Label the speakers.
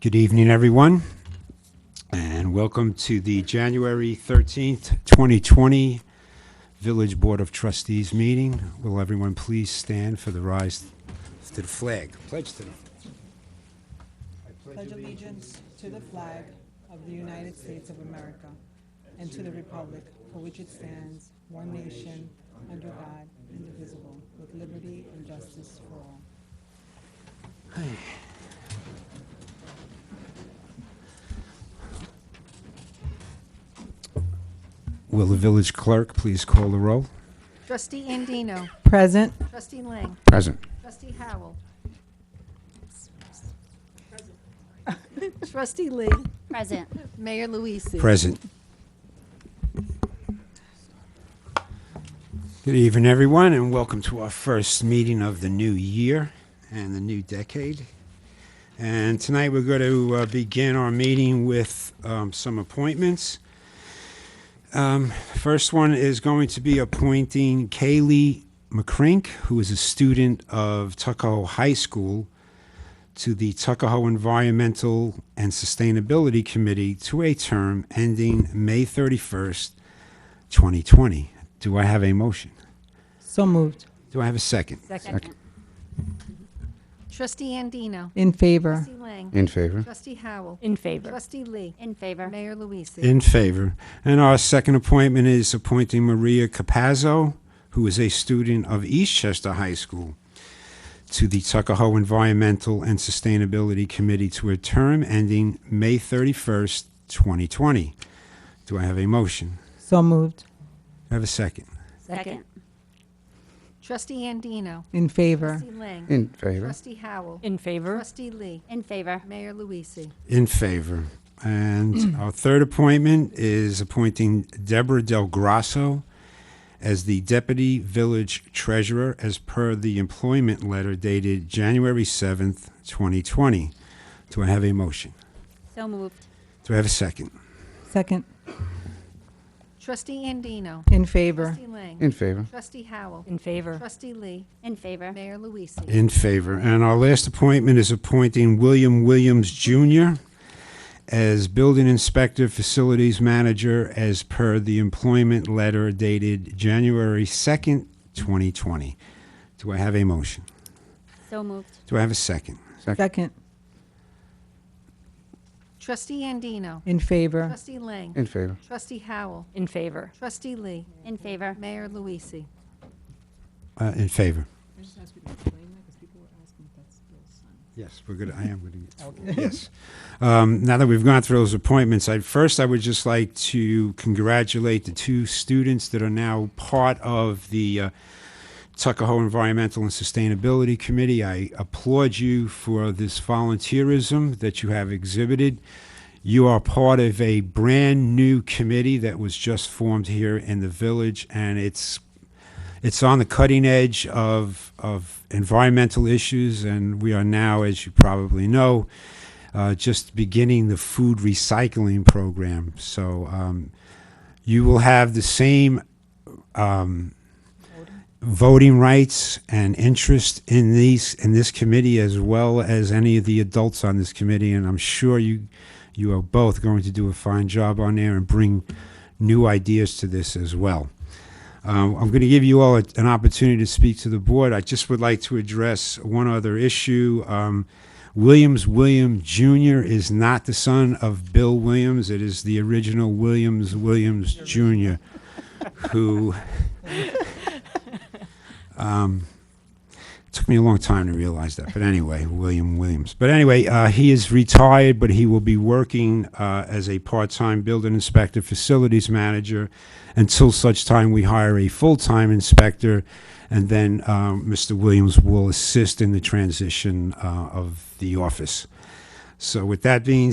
Speaker 1: Good evening, everyone, and welcome to the January 13th, 2020 Village Board of Trustees meeting. Will everyone please stand for the rise to the flag, pledge to the
Speaker 2: pledge allegiance to the flag of the United States of America and to the republic for which it stands, one nation, under God, indivisible, with liberty and justice for all.
Speaker 1: Will the village clerk please call the roll?
Speaker 3: Trustee Andino.
Speaker 2: Present.
Speaker 3: Trustee Lang.
Speaker 1: Present.
Speaker 3: Trustee Howell. Trustee Lee.
Speaker 4: Present.
Speaker 3: Mayor Luise.
Speaker 1: Present. Good evening, everyone, and welcome to our first meeting of the new year and the new decade. And tonight, we're going to uh, begin our meeting with um, some appointments. Um, First one is going to be appointing Kaylee McCrink, who is a student of Tuckahoe High School, to the Tuckahoe Environmental and Sustainability Committee to a term ending May 31st, 2020. Do I have a motion?
Speaker 2: So moved.
Speaker 1: Do I have a second?
Speaker 4: Second.
Speaker 3: Trustee Andino.
Speaker 2: In favor.
Speaker 3: Trustee Lang.
Speaker 5: In favor.
Speaker 3: Trustee Howell.
Speaker 6: In favor.
Speaker 3: Trustee Lee.
Speaker 4: In favor.
Speaker 3: Mayor Luise.
Speaker 1: In favor. And our second appointment is appointing Maria Capazzo, who is a student of Eastchester High School, to the Tuckahoe Environmental and Sustainability Committee to a term ending May 31st, 2020. Do I have a motion?
Speaker 2: So moved.
Speaker 1: Do I have a second?
Speaker 4: Second.
Speaker 3: Trustee Andino.
Speaker 2: In favor.
Speaker 3: Trustee Lang.
Speaker 5: In favor.
Speaker 3: Trustee Howell.
Speaker 6: In favor.
Speaker 3: Trustee Lee.
Speaker 4: In favor.
Speaker 3: Mayor Luise.
Speaker 1: In favor. And our third appointment is appointing Deborah Del Grasso as the Deputy Village Treasurer as per the employment letter dated January 7th, 2020. Do I have a motion?
Speaker 4: So moved.
Speaker 1: Do I have a second?
Speaker 2: Second.
Speaker 3: Trustee Andino.
Speaker 2: In favor.
Speaker 3: Trustee Lang.
Speaker 5: In favor.
Speaker 3: Trustee Howell.
Speaker 6: In favor.
Speaker 3: Trustee Lee.
Speaker 4: In favor.
Speaker 3: Mayor Luise.
Speaker 1: In favor. And our last appointment is appointing William Williams Jr. as Building Inspector Facilities Manager as per the employment letter dated January 2nd, 2020. Do I have a motion?
Speaker 4: So moved.
Speaker 1: Do I have a second?
Speaker 2: Second.
Speaker 3: Trustee Andino.
Speaker 2: In favor.
Speaker 3: Trustee Lang.
Speaker 5: In favor.
Speaker 3: Trustee Howell.
Speaker 6: In favor.
Speaker 3: Trustee Lee.
Speaker 4: In favor.
Speaker 3: Mayor Luise.
Speaker 1: Uh, in favor. Yes, we're good. I am going to get. Yes. Um, now that we've gone through those appointments, I, first I would just like to congratulate the two students that are now part of the uh, Tuckahoe Environmental and Sustainability Committee. I applaud you for this volunteerism that you have exhibited. You are part of a brand new committee that was just formed here in the village, and it's it's on the cutting edge of of environmental issues, and we are now, as you probably know, uh, just beginning the food recycling program. So um, you will have the same um, voting rights and interest in these in this committee as well as any of the adults on this committee, and I'm sure you you are both going to do a fine job on there and bring new ideas to this as well. Um, I'm going to give you all a- an opportunity to speak to the board. I just would like to address one other issue. Um, Williams William Jr. is not the son of Bill Williams. It is the original Williams Williams Jr. who um, took me a long time to realize that. But anyway, William Williams. But anyway, uh, he is retired, but he will be working uh, as a part-time building inspector, facilities manager, until such time we hire a full-time inspector, and then um, Mr. Williams uh, will assist in the transition uh, of the office. So with that being